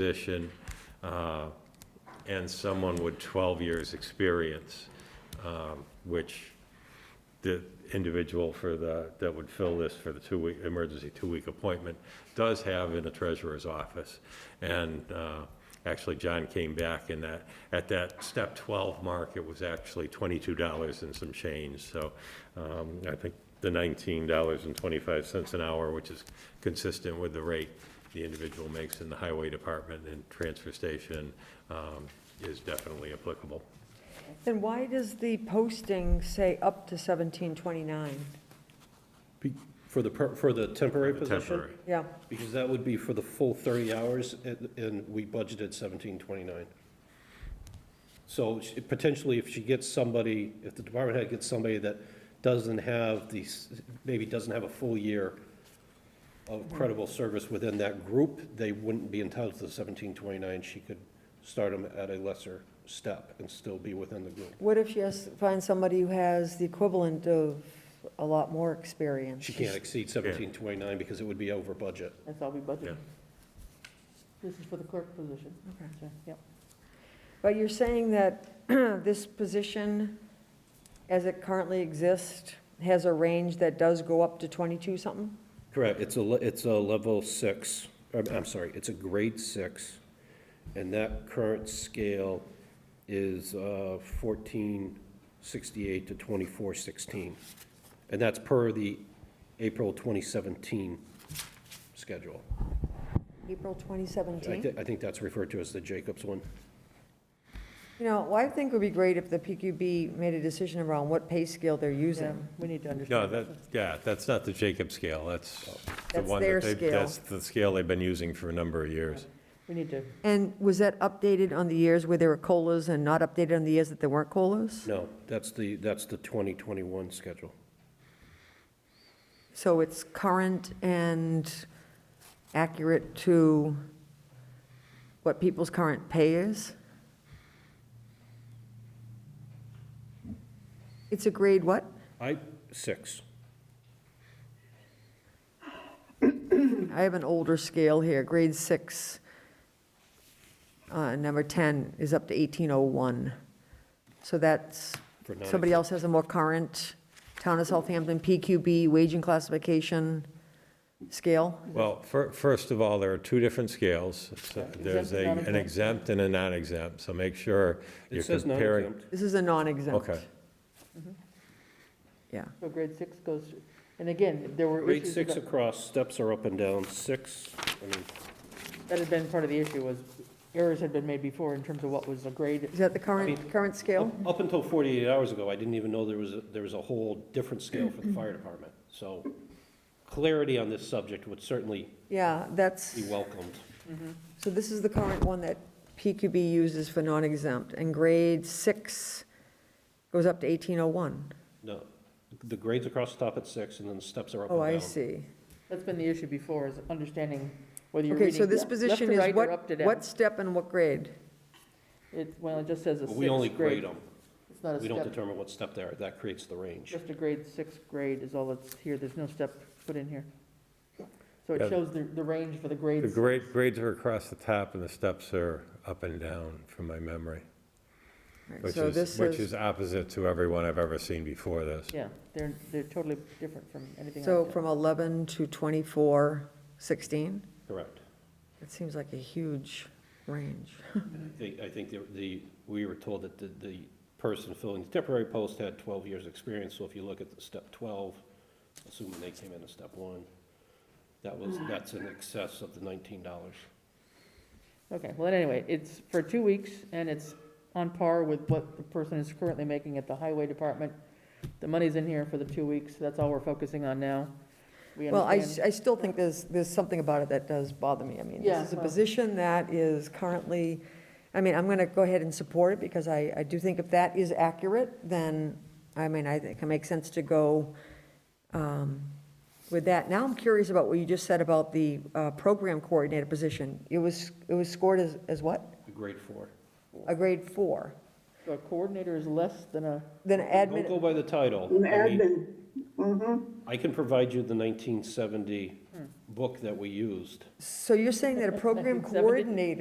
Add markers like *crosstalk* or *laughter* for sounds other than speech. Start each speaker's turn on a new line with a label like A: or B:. A: position uh, and someone with 12 years' experience, um, which the individual for the, that would fill this for the two-week, emergency two-week appointment, does have in the treasurer's office. And uh, actually, John came back in that, at that step 12 mark, it was actually $22 and some change. So um, I think the $19.25 an hour, which is consistent with the rate the individual makes in the highway department and transfer station, um, is definitely applicable.
B: Then why does the posting say up to 1729?
C: Be- For the, per- for the temporary position?
A: Temporary.
B: Yeah,
C: Because that would be for the full 30 hours, and- and we budgeted 1729. So she- potentially, if she gets somebody, if the department head gets somebody that doesn't have these, maybe doesn't have a full year of credible service within that group, they wouldn't be entitled to the 1729. She could start them at a lesser step and still be within the group.
B: what if she has, finds somebody who has the equivalent of a lot more experience?
C: She can't exceed 1729 because it would be over budget.
D: That's all we
A: Yeah.
D: budgeted. This is for the clerk position.
B: Okay.
D: So, Yep.
B: But you're saying that *clears throat* this position, as it currently exists, has a range that does go up to 22 something?
C: Correct, it's a, le- it's a level six, I'm, I'm sorry, it's a grade six, and that current scale is uh, fourteen sixty-eight to twenty-four sixteen. And that's per the April twenty seventeen schedule.
B: April
C: I
B: 2017?
C: thi- I think that's referred to as the Jacobs one.
B: You know, well, I think it would be great if the PQB made a decision around what pay scale they're
D: Yeah,
B: using.
D: we need to
A: No,
D: understand.
A: that, yeah, that's not the Jacob scale, that's the
B: That's
A: one
B: their
A: that they,
B: scale.
A: that's the scale they've been using for a number of years.
D: We need to,
B: And was that updated on the years where there were COLAs and not updated on the years that there weren't COLAs?
C: No, that's the, that's the twenty twenty-one schedule.
B: So it's current and accurate to what people's current pay is? It's a grade what?
C: I, six.
B: I have an older scale here, grade six, uh, number 10 is up to 1801. So that's,
C: For nine.
B: somebody else has a more current Town of Southampton PQB wage and classification scale?
A: Well, fir- first of all, there are two different scales. So There's a,
D: Exempt and
A: an exempt and a non-exempt, so make sure you're
C: It says
A: comparing.
C: non-exempt.
B: This is a non-exempt. Mm-hmm.
A: Okay.
B: Yeah.
D: so grade six goes, and again, if there were
C: Grade
D: issues
C: six
D: about-
C: across, steps are up and down, six, I mean,
D: that had been part of the issue was errors had been made before in terms of what was a grade.
B: Is that the current, current
D: oh.
B: scale?
C: Up until 48 hours ago, I didn't even know there was, a- there was a whole different scale for
B: Mm-hmm.
C: the fire department. So clarity on this subject would certainly
B: Yeah, that's,
C: be welcomed.
B: so this is the current one that PQB uses for non-exempt, and grade six goes up to 1801.
C: No, the grades across the top at six, and then the steps are up and
B: Oh,
C: down.
B: I see.
D: That's been the issue before is understanding whether you're
B: Okay,
D: reading
B: so this
D: left
B: position
D: to
B: is
D: right or up
B: what,
D: to
B: what
D: down.
B: step and what grade?
D: It, well, it just says a
C: But we only
D: sixth
C: grade
D: grade.
C: them.
D: It's not a
C: We don't
D: step,
C: determine what step they are. That creates the range.
D: just a grade six grade is all that's here. There's no step put in here. So
A: Yeah.
D: it shows the, the range for the
A: The
D: grades.
A: grade, grades are across the top and the steps are up and down from my memory,
B: All right,
A: which
B: So this
A: is, which is opposite to everyone I've ever seen before this.
D: Yeah, they're, they're totally different from anything.
B: So
D: I've done.
B: from 11 to 24, 16?
C: Correct.
B: It seems like a huge range.
C: I think, I think the- the, we were told that the, the person filling the temporary post had 12 years' experience. So if you look at the step 12, assuming they came in at step one, that was, that's in excess of the $19.
D: Okay, well, anyway, it's for two weeks, and it's on par with what the person is currently making at the highway department. The money's in here for the two weeks, that's all we're focusing on now. We
B: Well, I,
D: understand.
B: I still think there's, there's something about it that does bother me. I mean,
D: Yeah,
B: this is a
D: well-
B: position that is currently, I mean, I'm going to go ahead and support it because I, I do think if that is accurate, then, I mean, I think it makes sense to go um, with that. Now I'm curious about what you just said about the uh, program coordinator position. It was, it was scored as, as what?
C: The grade four.
B: A grade four,
D: So A coordinator is less than a,
B: then
C: Don't
B: admin,
C: go by the title.
E: An
C: I mean,
E: admin, Mm-hmm.
C: I can provide you the nineteen seventy book that we used.
B: So you're saying that a program
D: 1970?
B: coordinator